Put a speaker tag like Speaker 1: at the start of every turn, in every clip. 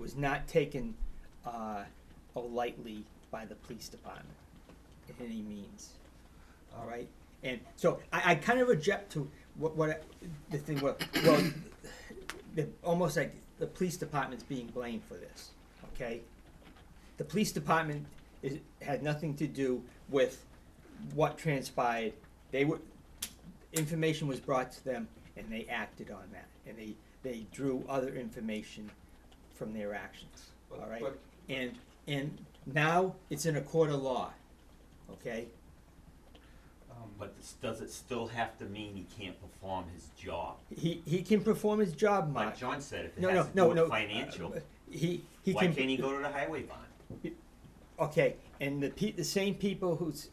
Speaker 1: was not taken uh, lightly by the police department in any means. All right, and so I, I kind of object to what what I- the thing was. Well, the, almost like the police department's being blamed for this. Okay, the police department is, had nothing to do with what transpired. They were information was brought to them, and they acted on that, and they they drew other information from their actions.
Speaker 2: But-
Speaker 1: all right,
Speaker 2: but-
Speaker 1: and and now it's in a court of law. Okay.
Speaker 2: Um,
Speaker 3: But this, does it still have to mean he can't perform his job?
Speaker 1: He, he can perform his job, Mark.
Speaker 3: Like John said, if it
Speaker 1: no, no,
Speaker 3: has to do
Speaker 1: no, no.
Speaker 3: with financial,
Speaker 1: Uh, He, he
Speaker 3: why
Speaker 1: can.
Speaker 3: can't he go to the highway bond?
Speaker 1: Okay, and the pe- the same people who's,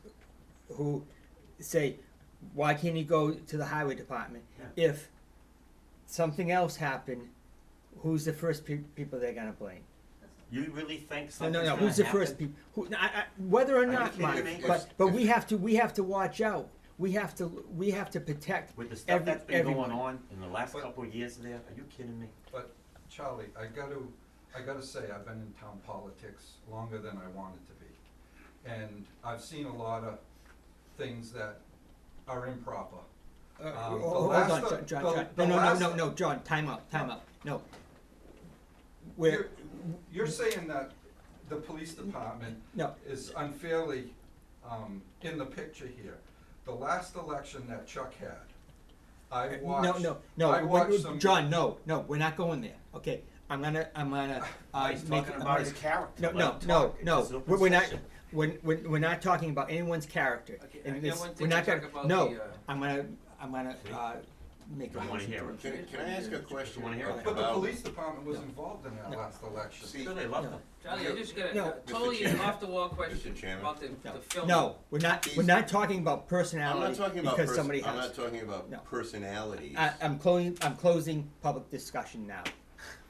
Speaker 1: who say, why can't he go to the highway department? If something else happened, who's the first pe- people they're gonna blame?
Speaker 3: You really think
Speaker 1: No,
Speaker 3: something's
Speaker 1: no,
Speaker 3: gonna
Speaker 1: no,
Speaker 3: happen?
Speaker 1: who's the first people, who, I, I, whether or
Speaker 3: you
Speaker 1: not,
Speaker 3: kidding
Speaker 1: Mark,
Speaker 3: me?
Speaker 1: but, but we have to, we have to watch out. We have to, we have to protect
Speaker 3: With the stuff
Speaker 1: every,
Speaker 3: that's been
Speaker 1: everyone.
Speaker 3: going on in the last
Speaker 2: But-
Speaker 3: couple of years there, are you kidding me?
Speaker 2: But Charlie, I gotta, I gotta say, I've been in town politics longer than I wanted to be. And I've seen a lot of things that are improper.
Speaker 1: Uh,
Speaker 2: Um,
Speaker 1: ho-
Speaker 2: the
Speaker 1: Hold
Speaker 2: last
Speaker 1: on,
Speaker 2: of-
Speaker 1: John, John,
Speaker 2: the-
Speaker 1: John.
Speaker 2: the
Speaker 1: No, no,
Speaker 2: last
Speaker 1: no, no,
Speaker 2: of-
Speaker 1: no, John, time out, time out. No. We're, Mm,
Speaker 2: You're saying that the police department
Speaker 1: no,
Speaker 2: is unfairly um, in the picture here. The last election that Chuck had, I
Speaker 1: Uh, no,
Speaker 2: watched,
Speaker 1: no,
Speaker 2: I
Speaker 1: no,
Speaker 2: watched
Speaker 1: we're-
Speaker 2: some.
Speaker 1: John, no, no, we're not going there. Okay, I'm gonna, I'm gonna, uh,
Speaker 3: He's
Speaker 1: make,
Speaker 3: talking
Speaker 1: I'm
Speaker 3: about
Speaker 1: gonna-
Speaker 3: his character.
Speaker 1: no,
Speaker 3: Let
Speaker 1: no,
Speaker 3: him
Speaker 1: no,
Speaker 3: talk. This is
Speaker 1: no,
Speaker 3: open
Speaker 1: we're, we're not,
Speaker 3: session.
Speaker 1: we're, we're, we're not talking about anyone's character.
Speaker 4: Okay,
Speaker 1: And
Speaker 4: I- I
Speaker 1: this-
Speaker 4: want
Speaker 1: we're
Speaker 4: to
Speaker 1: not
Speaker 4: talk
Speaker 1: gonna-
Speaker 4: about
Speaker 1: no,
Speaker 4: the, uh,
Speaker 1: I'm gonna, I'm gonna,
Speaker 3: See?
Speaker 1: uh, make a
Speaker 3: Don't wanna
Speaker 1: motion
Speaker 3: hear
Speaker 1: to
Speaker 3: it.
Speaker 5: Can, I- can I ask a question?
Speaker 3: wanna hear it.
Speaker 2: But the
Speaker 5: about-
Speaker 2: police department was
Speaker 1: No.
Speaker 2: involved in that
Speaker 1: No.
Speaker 2: last election.
Speaker 5: See,
Speaker 3: Sure, they love
Speaker 1: No.
Speaker 3: him.
Speaker 4: Charlie, I just got
Speaker 1: No.
Speaker 4: a
Speaker 1: Mr.
Speaker 4: totally
Speaker 5: Chairman.
Speaker 4: off-the-wall question
Speaker 5: Mr. Chairman.
Speaker 4: about the,
Speaker 1: No.
Speaker 4: the film.
Speaker 1: No, we're not, we're
Speaker 5: He's-
Speaker 1: not talking about
Speaker 5: I'm not
Speaker 1: personality
Speaker 5: talking about
Speaker 1: because somebody
Speaker 5: person,
Speaker 1: has.
Speaker 5: I'm not talking
Speaker 1: No.
Speaker 5: about personalities.
Speaker 1: I, I'm closing, I'm closing public discussion now,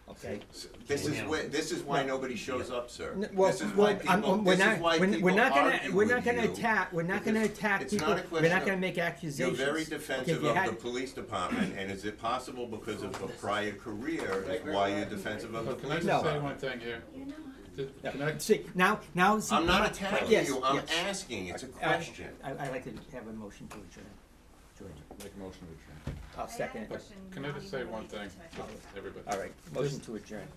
Speaker 1: okay?
Speaker 5: S- This is
Speaker 3: Yeah.
Speaker 5: where, this is why nobody shows up, sir.
Speaker 1: N- Well,
Speaker 5: This is why
Speaker 1: well, I'm-
Speaker 5: people,
Speaker 1: we're
Speaker 5: this
Speaker 1: not,
Speaker 5: is why
Speaker 1: we're- we're
Speaker 5: people
Speaker 1: not gonna,
Speaker 5: argue
Speaker 1: we're not
Speaker 5: with
Speaker 1: gonna
Speaker 5: you.
Speaker 1: attack, we're not gonna
Speaker 5: because
Speaker 1: attack
Speaker 5: it's
Speaker 1: people,
Speaker 5: not a
Speaker 1: we're not
Speaker 5: question
Speaker 1: gonna
Speaker 5: of-
Speaker 1: make
Speaker 5: You're
Speaker 1: accusations.
Speaker 5: very
Speaker 1: If
Speaker 5: defensive
Speaker 1: you
Speaker 5: of
Speaker 1: had-
Speaker 5: the police department, and is it possible because of a prior career is why you're defensive of the
Speaker 6: So can I
Speaker 5: police
Speaker 1: No.
Speaker 6: just say one
Speaker 5: department?
Speaker 6: thing here? Th-
Speaker 1: Yeah,
Speaker 6: Can I,
Speaker 1: See, now, now, see.
Speaker 5: I'm not attacking
Speaker 1: Yes,
Speaker 5: you, I'm
Speaker 1: yes. Uh,
Speaker 5: asking, it's a
Speaker 1: I-
Speaker 5: question.
Speaker 1: I, I'd like to have a motion to adjourn, George,
Speaker 7: Make a motion to adjourn.
Speaker 1: I'll
Speaker 8: I had a
Speaker 1: second it.
Speaker 8: question
Speaker 6: can I
Speaker 8: not
Speaker 6: just
Speaker 8: even
Speaker 6: say one
Speaker 8: related
Speaker 6: thing,
Speaker 8: to it.
Speaker 6: everybody?
Speaker 1: All right, motion to adjourn.